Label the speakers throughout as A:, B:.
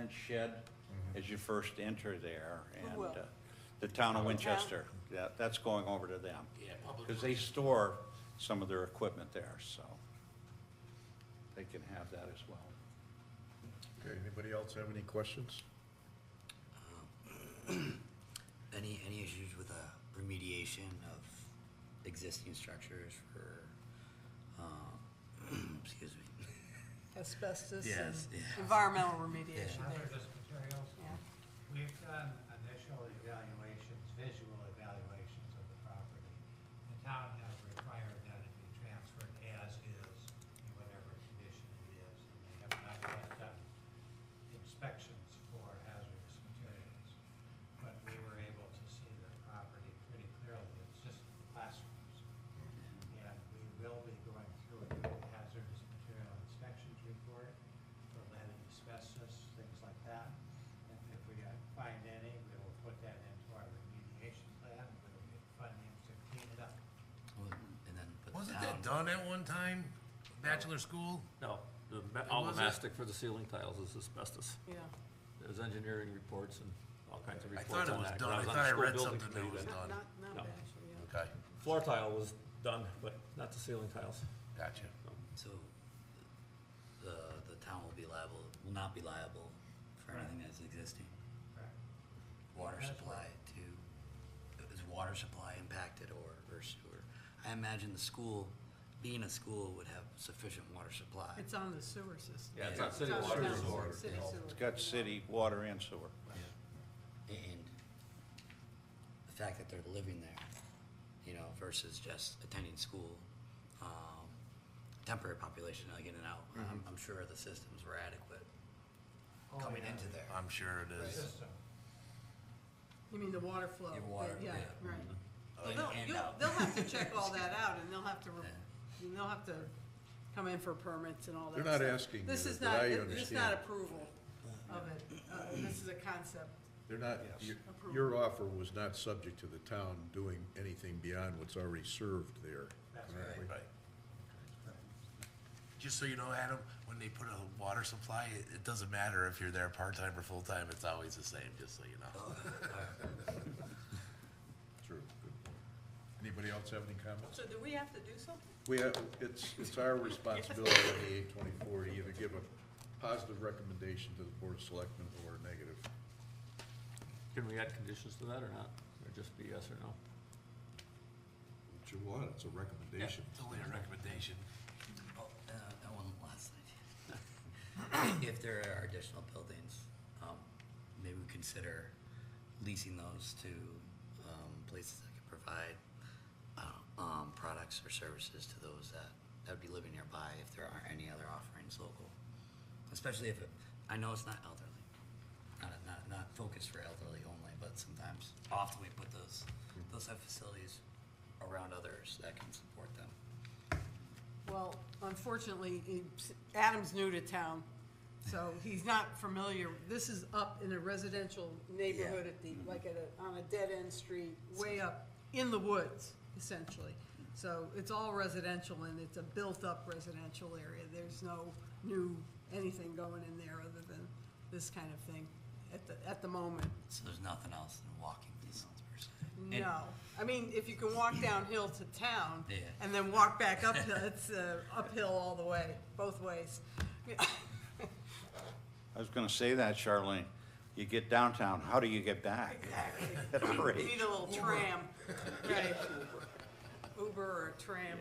A: orange shed as you first enter there. and
B: will?
A: uh, The town of Winchester, yeah, that's going over to them.
C: Yeah, public-
A: Because they store some of their equipment there, so they can have that as well.
D: Okay, anybody else have any questions?
C: Any, any issues with the remediation of existing structures for, uh, excuse me.
B: asbestos and
C: Yes, yeah.
B: environmental remediation
E: Other
B: there.
E: materials,
B: Yeah.
E: we've done initial evaluations, visual evaluations of the property. The town has required that it be transferred as is, in whatever condition it is, and they have not yet done inspections for hazardous materials. But we were able to see the property pretty clearly, it's just classrooms. And we will be going through a hazardous material inspections report for lead and asbestos, things like that. And if we uh, find any, we will put that into our remediation plan, we will get funding to clean it up.
C: Well, And then, but
F: Wasn't
C: down-
F: that done at one time, bachelor school?
G: No, the, ma- all the
F: was it?
G: mastic for the ceiling tiles is asbestos.
B: Yeah,
G: There's engineering reports and all kinds of
F: I
G: reports
F: thought it
G: on that.
F: was
G: 'cause
F: done. I
G: was on
F: thought
G: the
F: I
G: school
F: read
G: building
F: something that
G: committee
F: was
G: then.
B: not,
F: Done.
B: not, not
G: No.
B: actually, yeah.
F: Okay,
G: Floor tile was done, but not the ceiling tiles.
F: gotcha.
C: So, the, the town will be liable, will not be liable for anything that's existing.
E: Correct.
C: Water
E: That's
C: supply too, is water supply impacted or, or sewer? I imagine the school, being a school would have sufficient water supply.
B: It's on the sewer system.
G: Yeah, it's
C: Yeah.
G: not city
B: It's on
G: water.
B: the
G: it's
B: sewer,
G: water.
B: city sewer.
A: It's got city water and sewer.
C: And the fact that they're living there, you know, versus just attending school, um, temporary population, like in and out, I'm, I'm sure the systems were adequate coming into there.
F: I'm sure it is.
E: System.
B: You mean the water flow?
C: Your water,
B: Yeah,
C: yeah.
B: right.
C: In
B: They'll,
C: and
B: you'll-
C: out.
B: they'll have to check all that out, and they'll have to, re-
C: Yeah.
B: and they'll have to come in for permits and all that
D: They're not
B: stuff.
D: asking
B: This
D: you,
B: is
D: but
B: not, thi-
D: I
B: this is not
D: understand.
B: approval of it, Uh, this is a concept.
D: They're not, your,
B: Approval.
D: your offer was not subject to the town doing anything beyond what's already served there.
E: That's
D: correct?
F: Right. Just so you know, Adam, when they put a water supply, it, it doesn't matter if you're there part-time or full-time, it's always the same, just so you know.
D: True. Good point. Anybody else have any comments?
B: So do we have to do something?
D: We have, it's, it's our responsibility in the eight twenty-four to either give a positive recommendation to the board of selectmen or a negative.
G: Can we add conditions to that or not? Or just be yes or no?
D: What you want, it's a recommendation.
F: It's only a recommendation.
C: Oh, uh, that one last thing. If there are additional buildings, um, maybe we consider leasing those to, um, places that can provide, uh, um, products or services to those that, that would be living nearby if there aren't any other offerings local. Especially if, it- I know it's not elderly, not, not, not focused for elderly only, but sometimes often we put those, those type of facilities around others that can support them.
B: Well, unfortunately, it's- Adam's new to town, so he's not familiar. This is up in a residential neighborhood at the, like at a, on a dead-end street, way up in the woods, essentially. So it's all residential and it's a built-up residential area. There's no new anything going in there other than this kind of thing at the, at the moment.
C: So there's nothing else than walking distance per se. And-
B: No, I mean, if you can walk downhill to town
C: Yeah.
B: and then walk back uphill, it's uh, uphill all the way, both ways.
A: I was gonna say that, Charlene. You get downtown, how do you get back? At our
B: You
A: age.
B: Need a little tram, right? Uber or a tram,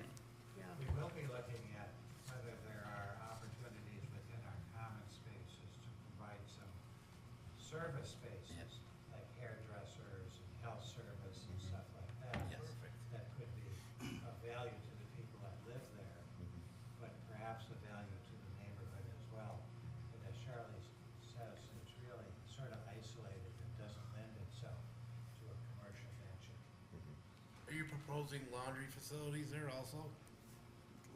B: yeah.
E: We will be looking at whether there are opportunities within our common spaces to provide some service spaces, like hairdressers and health service and stuff like that.
C: Yes.
E: That could be of value to the people that live there, but perhaps of value to the neighborhood as well. And as Charlie s- says, it's really sort of isolated and doesn't lend itself to a commercial venture.
F: Are you proposing laundry facilities there also?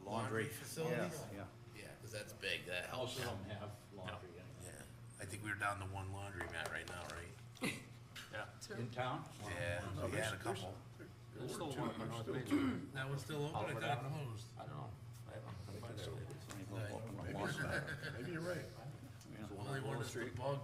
A: Laundry.
F: Facilities?
A: Yeah.
F: Yeah, cause that's big, that helps.
A: Most of them have laundry
F: Yeah, I think we're down to one laundromat right now, right?
A: in- in town.
D: Oh,
F: Yeah, we had a couple.
G: There's still one up on North Main.
F: That one's still open, I thought it closed.
G: I don't know. I haven't been by there lately.
A: Maybe you're right.
F: Only one that's the bug